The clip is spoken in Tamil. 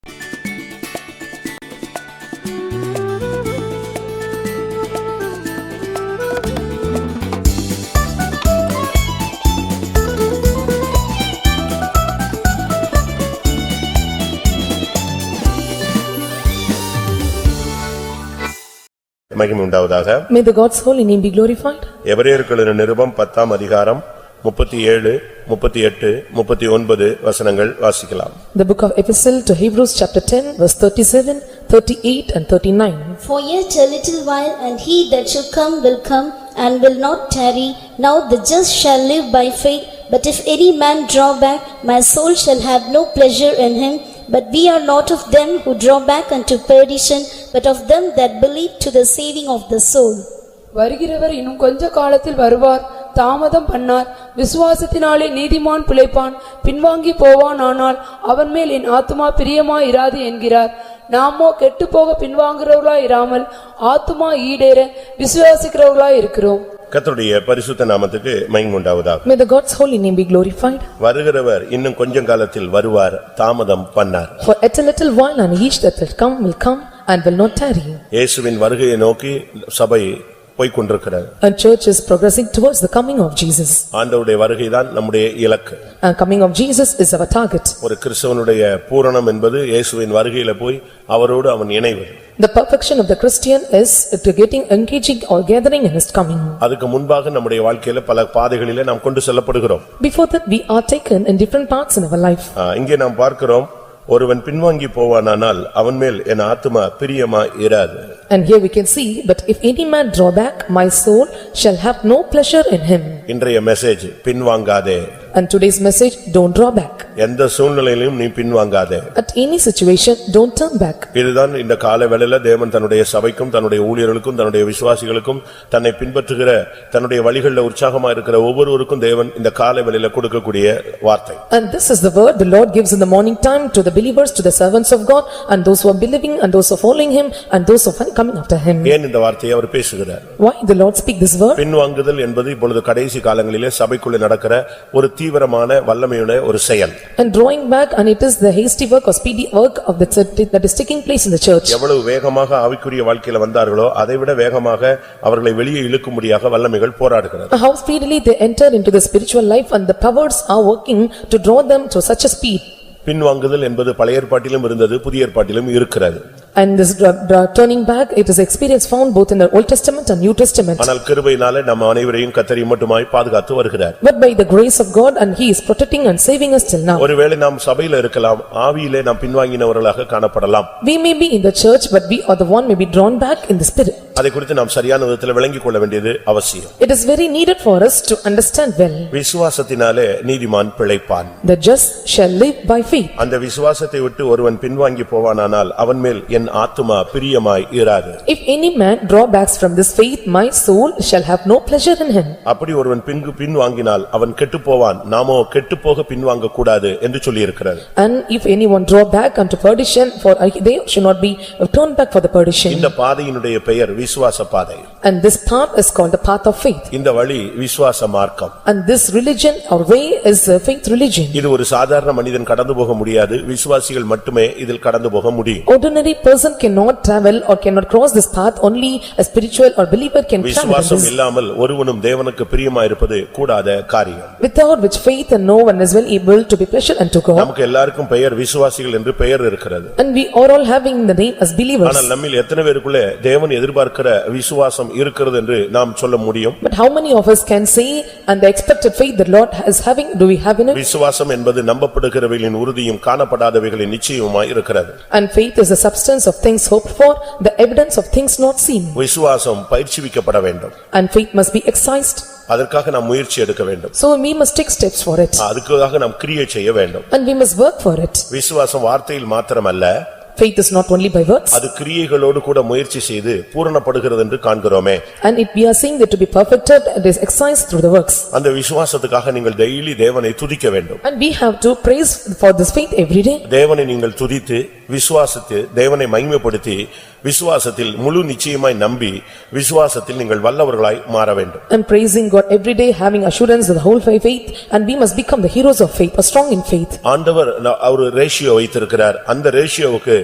மகிமை உண்டாவதாக May the God's holy name be glorified. எபிரேயர்களின் நிருபம் பத்தாம் அதிகாரம் முப்பத்தி ஏழு முப்பத்தி எட்டு முப்பத்தி ஒன்பது வசனங்கள் வாசிக்கலாம் The book of Epistle to Hebrews chapter 10 verse 37, 38 and 39. For yet a little while, and he that shall come will come, and will not tarry. Now the just shall live by faith. But if any man draw back, my soul shall have no pleasure in him. But we are not of them who draw back unto perdition, but of them that believe to the saving of the soul. வருகிறவர் இன்னும் கொஞ்ச காலத்தில் வருவார் தாமதம் பண்ணார் விசுவாசத்தினாலே நீதிமான் பிழைப்பான் பின்வாங்கி போவான் ஆனால் அவன் மேல் என் ஆத்துமா பிரியமாயிராது என்கிறார் நாமோ கெட்டுப்போக பின்வாங்குறவர்களாய் இராமல் ஆத்துமா ஈடேற விசுவாசிக்கிறவர்களாய் இருக்கிறோம் கர்த்தருடைய பரிசுத்த நாமத்துக்கு மகிமை உண்டாவதாக May the God's holy name be glorified. வருகிறவர் இன்னும் கொஞ்சம் காலத்தில் வருவார் தாமதம் பண்ணார் For at a little while and each that will come will come and will not tarry. இயேசுவின் வருகையை நோக்கி சபை போய்க் கொண்டிருக்கிறது And church is progressing towards the coming of Jesus. ஆண்டவருடைய வருகைதான் நம்முடைய இலக்கு And coming of Jesus is our target. ஒரு கிறிஸ்தவனுடைய பூரணம் என்பது இயேசுவின் வருகையில போய் அவரோடு அவன் இணைவது The perfection of the Christian is to getting engaging or gathering in his coming. அதுக்கு முன்பாக நம்முடைய வாழ்க்கையில பல பாதைகளிலே நாம் கொண்டு செல்லப்படுகிறோம் Before that, we are taken in different parts in our life. ஆ, இங்கே நாம் பார்க்கிறோம் ஒருவன் பின்வாங்கி போவானானால் அவன் மேல் என் ஆத்துமா பிரியமா இராது And here we can see, but if any man draw back, my soul shall have no pleasure in him. இன்றைய மெசேஜ் பின்வாங்காதே And today's message, don't draw back. எந்த சூழ்நிலையிலும் நீ பின்வாங்காதே At any situation, don't turn back. இதுதான் இந்த காலவேளையில தேவன் தன்னுடைய சபைக்கும் தன்னுடைய ஊழியர்களுக்கும் தன்னுடைய விசுவாசிகளுக்கும் தன்னை பின்பற்றுகிற தன்னுடைய வழிகளில் உற்சாகமா இருக்கிற ஒவ்வொருவருக்கும் தேவன் இந்த காலவேளையில கொடுக்கக்கூடிய வார்த்தை And this is the word the Lord gives in the morning time to the believers, to the servants of God, and those who are believing, and those who are following him, and those who are coming after him. ஏன் இந்த வார்த்தையை அவர் பேசுகிறார் Why the Lord speak this word? பின்வாங்குதல் என்பது இப்பொழுது கடைசி காலங்களிலே சபைக்குள்ளே நடக்கிற ஒரு தீவிரமான வல்லமையுடைய ஒரு செயல் And drawing back, and it is the hasty work or speedy work of the church that is taking place in the church. எவ்வளவு வேகமாக ஆவிக்குரிய வாழ்க்கையில வந்தார்களோ அதைவிட வேகமாக அவர்களை வெளியே இழுக்கும்படியாக வல்லமைகள் போராடுகிறது How speedily they enter into the spiritual life and the powers are working to draw them to such a speed. பின்வாங்குதல் என்பது பழைய ஏற்பாட்டிலும் இருந்தது புதிய ஏற்பாட்டிலும் இருக்கிறது And this dra- dra- turning back, it is experience found both in the Old Testament and New Testament. ஆனால் கிருபையினாலே நம்ம அனைவரையும் கத்தரி மட்டுமாய் பாதுகாத்து வருகிறார் But by the grace of God and he is protecting and saving us till now. ஒருவேளை நாம் சபையில இருக்கலாம் ஆவியிலே நாம் பின்வாங்கினவர்களாக காணப்படலாம் We may be in the church but we are the one may be drawn back in the spirit. அதை குறித்து நாம் சரியான விதத்தில் விளங்கிக் கொள்ள வேண்டியது அவசியம் It is very needed for us to understand well. விசுவாசத்தினாலே நீதிமான் பிழைப்பான் The just shall live by faith. அந்த விசுவாசத்தை விட்டு ஒருவன் பின்வாங்கி போவானானால் அவன் மேல் என் ஆத்துமா பிரியமாய் இராது If any man drawbacks from this faith, my soul shall have no pleasure in him. அப்படி ஒருவன் பின்கு பின்வாங்கினால் அவன் கெட்டுப் போவான் நாமோ கெட்டுப்போக பின்வாங்க கூடாது என்று சொல்லியிருக்கிறது And if anyone draw back unto perdition, for they should not be turned back for the perdition. இந்த பாதையினுடைய பெயர் விசுவாச பாதை And this path is called the path of faith. இந்த வழி விசுவாச மார்க்கம் And this religion or way is a faith religion. இது ஒரு சாதாரண மனிதன் கடந்து போக முடியாது விசுவாசிகள் மட்டுமே இதில் கடந்து போக முடியும் Ordinary person cannot travel or cannot cross this path, only a spiritual or believer can travel in விசுவாசம் this. இல்லாமல் ஒருவனும் தேவனுக்கு பிரியமாயிருப்பது கூடாத காரியம் Without which faith and no one is well able to be pleasure unto God. நமக்கு எல்லாருக்கும் பெயர் விசுவாசிகள் என்று பெயர் இருக்கிறது And we are all having the name as believers. ஆனால் நம்மில் எத்தனை பேருக்குள்ளே தேவன் எதிர்பார்க்கிற விசுவாசம் இருக்கிறது என்று நாம் சொல்ல முடியும் But how many of us can say, and the expected faith the Lord is having, do we have in it? விசுவாசம் என்பது நம்பப்படுகிறவைகளின் உறுதியும் காணப்படாதவைகளின் நிச்சயமாய் இருக்கிறது And faith is the substance of things hoped for, the evidence of things not seen. விசுவாசம் பயிற்சிவிக்கப்பட வேண்டும் And faith must be excised, அதற்காக நாம் முயற்சி எடுக்க வேண்டும் so we must take steps for Ah. it. அதுக்காக நாம் கிரியை செய்ய வேண்டும் And we must work for it. விசுவாசம் வார்த்தையில் மாத்திரமல்ல Faith is not only by words, அது கிரியைகளோடு கூட முயற்சி செய்து பூரணப்படுகிறது என்று காண்கிறோமே and it we are saying that to be perfected, it is exercised through the works. அந்த விசுவாசத்துக்காக நீங்கள் டெய்லி தேவனை துதிக்க வேண்டும் And we have to praise for this faith every day, தேவனை நீங்கள் துதித்து விசுவாசித்து தேவனை மகிமைப்படுத்தி விசுவாசத்தில் முழு நிச்சயமாய் நம்பி விசுவாசத்தில் நீங்கள் வல்லவர்களாய் மாற வேண்டும் and praising God every day, having assurance of the whole fi- faith, and we must become the heroes of faith, or strong in faith. ஆண்டவர் ந- அவர் ரேஷியோ வைத்திருக்கிறார் அந்த ரேஷியோவுக்கு